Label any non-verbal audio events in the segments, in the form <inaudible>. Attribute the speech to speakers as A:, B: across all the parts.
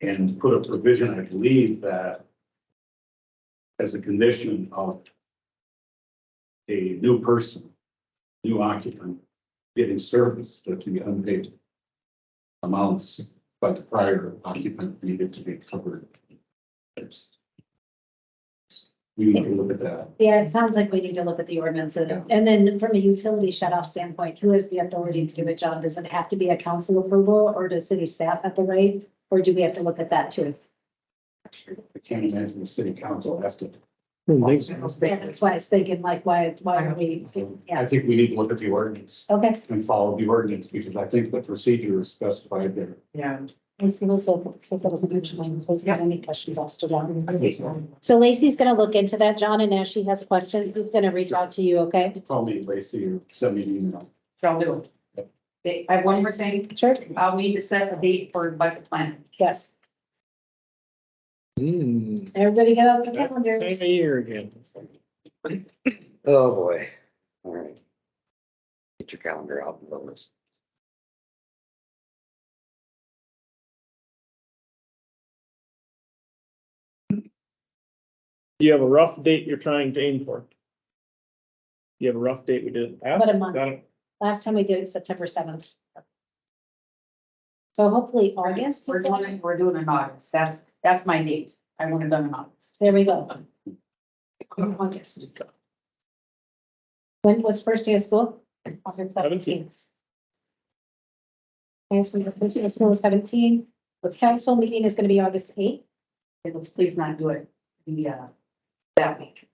A: and put a provision, I believe, that as a condition of a new person, new occupant, getting service that can be unpaid amounts by the prior occupant needed to be covered. We need to look at that.
B: Yeah, it sounds like we need to look at the ordinances. And then from a utility shut off standpoint, who has the authority to do a job? Does it have to be a council approval or does city staff have the right? Or do we have to look at that too?
A: I can't imagine the city council has to.
B: Yeah, that's why I was thinking like, why, why are we,
A: I
B: yeah,
A: think we need to look at the ordinance
B: okay.
A: and follow the ordinance because I think the procedure is specified there.
C: Yeah.
B: Let's see, let's look- take that as an action item. Please,
C: Yeah.
B: any questions asked to
A: I
B: John?
A: think so.
B: So Lacey's gonna look into that, John, and as she has questions, he's gonna reach out to you, okay?
A: Call me Lacey or send me an email.
D: Shall do. They, I have one more thing,
B: Sure.
D: I'll need to set a date for budget planning.
B: Yes.
E: Hmm.
B: Everybody get out the
E: Same
B: calendars.
E: of year again.
C: Oh, boy. All right. Get your calendar out and focus.
E: You have a rough date you're trying to aim for. You have a rough date we did in the past.
B: About a month.
E: Got it.
B: Last time we did it September seventh. So hopefully August. is
D: We're
B: that-
D: doing, it- we're doing it in August, that's, that's my date, I want it done in August.
B: There we go. August. When was first day of school? August seventeenth. Okay, so your first day of school is seventeen. The council meeting is gonna be August eighth.
D: And let's please not do it, the, uh, that week.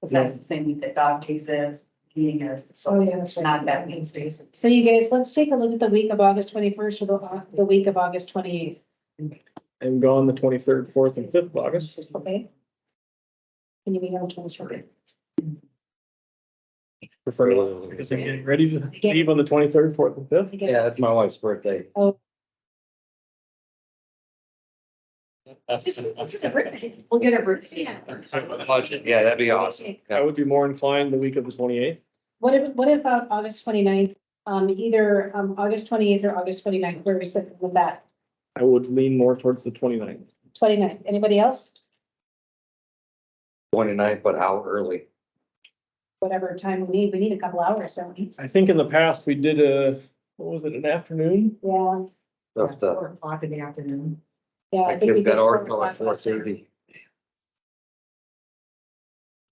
D: Cause that's the same week that dog cases, meeting is, so
B: yeah, that's
D: not that week, space.
B: So you guys, let's take a look at the week of August twenty-first or the, uh, the week of August twenty-eighth,
E: And gone the twenty-third, fourth and fifth of August.
B: okay? Can you be able to short it?
C: Oh.
E: Prefer, because I'm getting ready to leave on the twenty-third, fourth and fifth.
C: Yeah, it's my wife's birthday.
D: We'll get a birthday.
C: Budget, yeah, that'd be awesome.
E: I would be more inclined the week of the twenty-eighth.
B: What if, what about August 29th? um, either, um, August twenty-eighth or August 29th? where we sit with that,
E: I would lean more towards the 29th.
B: 29th. anybody else?
C: Twenty-ninth, but how early?
B: Whatever time we need, we need a couple hours, don't we?
E: I think in the past, we did a, what was it, an afternoon?
B: Yeah,
C: That's the,
D: o'clock in the afternoon.
B: yeah. I
C: uh, my
B: think we
C: kids
B: did
C: got
B: four
C: Oracle at
B: o'clock
C: four
B: last time.
C: thirty.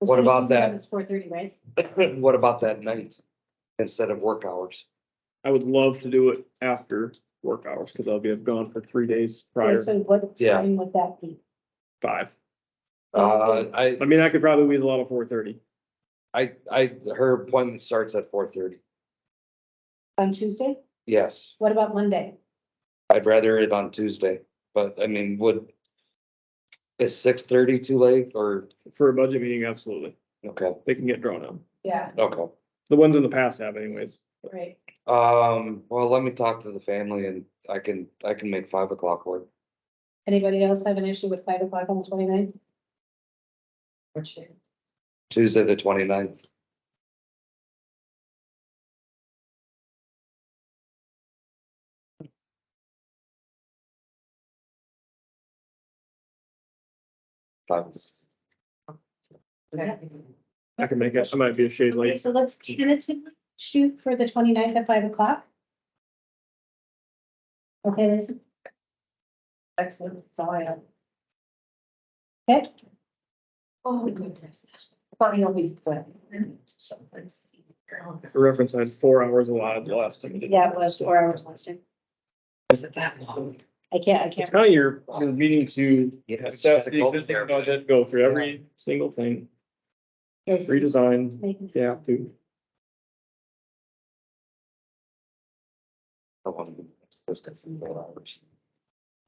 B: This
C: What about
B: week,
C: that?
B: It's four thirty, right?
C: <laughs> What about that night instead of work hours?
E: I would love to do it after work hours because I'll be gone for three days
B: Yeah,
E: prior to
B: So what
C: Yeah.
B: time would that be?
E: five.
C: Uh, I,
E: I mean, I could probably weasel out of four thirty.
C: I, I, her appointment starts at four thirty.
B: On Tuesday?
C: Yes,
B: What about Monday?
C: I'd rather it on Tuesday, but I mean, would. Is six thirty too late or,
E: For a budget meeting, absolutely.
C: okay,
E: They can get drawn out.
B: Yeah,
C: okay.
E: The ones in the past have anyways.
B: right.
C: Um, well, let me talk to the family and I can, I can make five o'clock work.
B: Anybody else have an issue with five o'clock on the 29th?
D: Which,
C: Tuesday, the 29th. Five,
D: okay.
E: I can make it. I might be a shade
B: Okay,
E: late.
B: so let's tentatively shoot for the 29th at five o'clock. Okay, Lisa,
D: Excellent, that's all I have.
B: okay,
D: Oh, goodness. Funny, I'll be glad. So, let's see.
E: For reference, I had four hours allotted the last time. we did
B: yeah, it was four hours last time.
C: Is it that long?
B: I can't, I
E: It's
B: can't,
E: kind of your, your meeting to
C: Yeah, it's
E: assess
C: kinda
E: the
C: golden
E: existing
C: there, but-
E: budget, go through every single thing,
B: yes,
E: redesign,
B: making-
E: yeah, to.
C: I want to- let's get some more hours.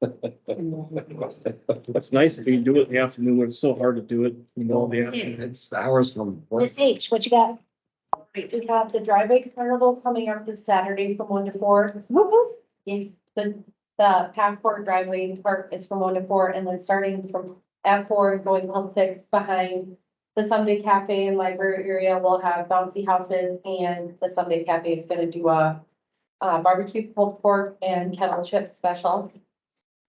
C: <laughs>
E: It's nice if you do it in the afternoon, when it's so hard to do it, you know, the afternoon.
C: It's hours from. work.
B: Miss H, what you got?
F: Great, we have the driveway carnival coming up this Saturday from one to four.
B: Woo-hoo.
F: Yeah, the, the passport driveway and park is from one to four, and then starting from at four, going till six behind the Sunday Cafe and Library area, we'll have bouncy houses, and the Sunday Cafe is gonna do a uh, barbecue pulled pork and kettle chip special.